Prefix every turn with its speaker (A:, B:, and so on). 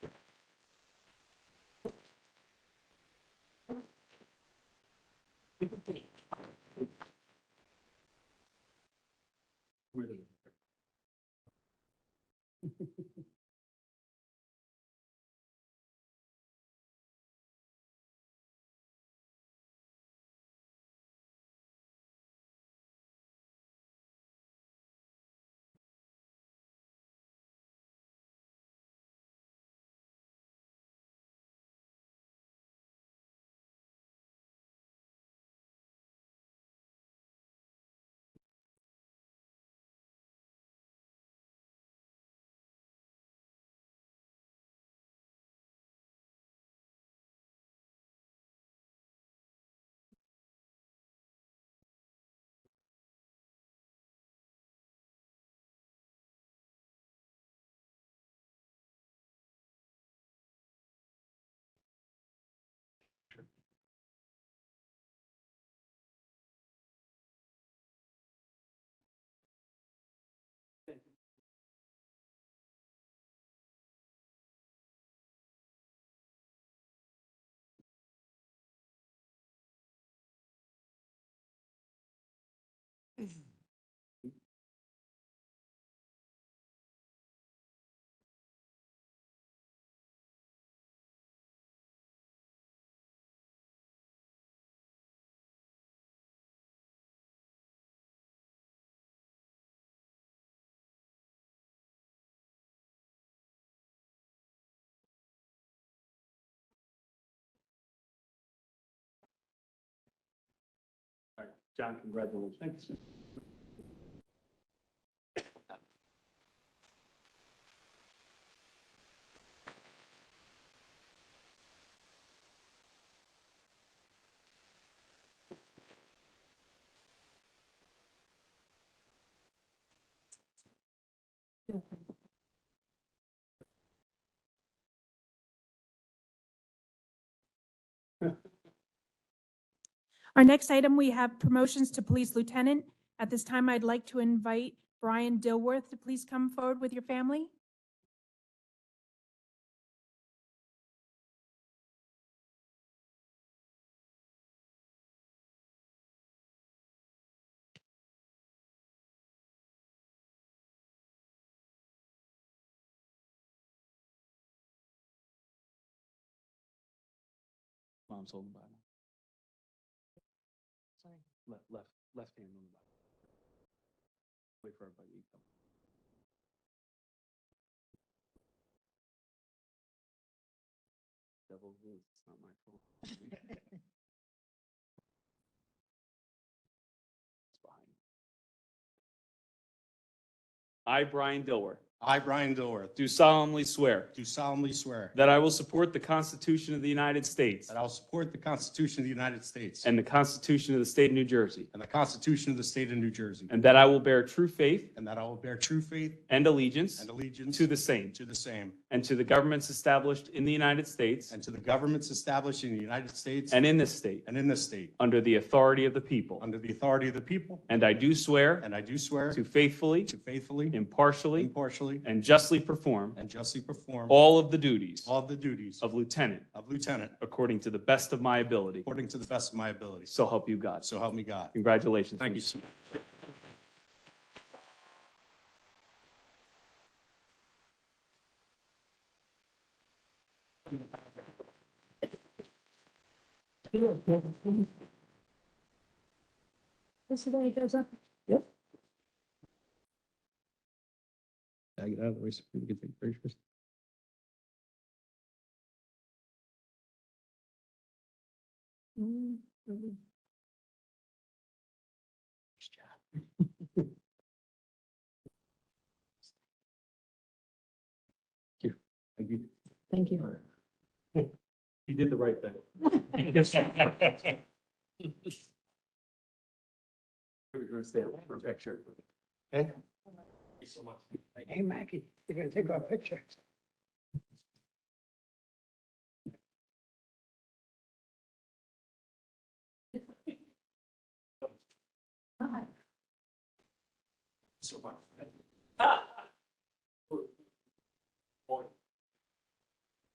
A: John, congratulations. Thanks.
B: Our next item, we have promotions to police lieutenant. At this time, I'd like to invite Brian Dilworth to please come forward with your family.
A: Mom's holding the Bible. Sorry. Left, left, left hand on the Bible. Wait for everybody to come. Devil rules, it's not my fault. It's behind. me. I, Brian Dilworth,
C: I, Brian Dilworth,
A: do solemnly swear
C: do solemnly swear
A: that I will support the Constitution of the United States
C: that I will support the Constitution of the United States
A: and the Constitution of the State of New Jersey.
C: and the Constitution of the State of New Jersey,
A: And that I will bear true faith
C: and that I will bear true faith
A: and allegiance
C: and allegiance
A: to the same
C: to the same
A: and to the governments established in the United States
C: and to the governments established in the United States
A: and in this state
C: and in this state,
A: under the authority of the people.
C: under the authority of the people,
A: And I do swear
C: and I do swear
A: to faithfully,
C: to faithfully,
A: impartially,
C: impartially,
A: and justly perform
C: and justly perform
A: all of the duties
C: all the duties
A: of lieutenant
C: of lieutenant
A: according to the best of my ability.
C: according to the best of my ability.
A: So help you God.
C: So help me God.
A: Congratulations.
C: Thank you.
A: Mr.
B: This is where he goes up.
D: I get out of the way so people can take pictures.
A: Thank you.
E: Thank you.
A: You did the right thing. We're gonna stay up for a picture. Okay? Thank you so much.
D: Hey, Maggie, you're gonna take our picture.
A: So much.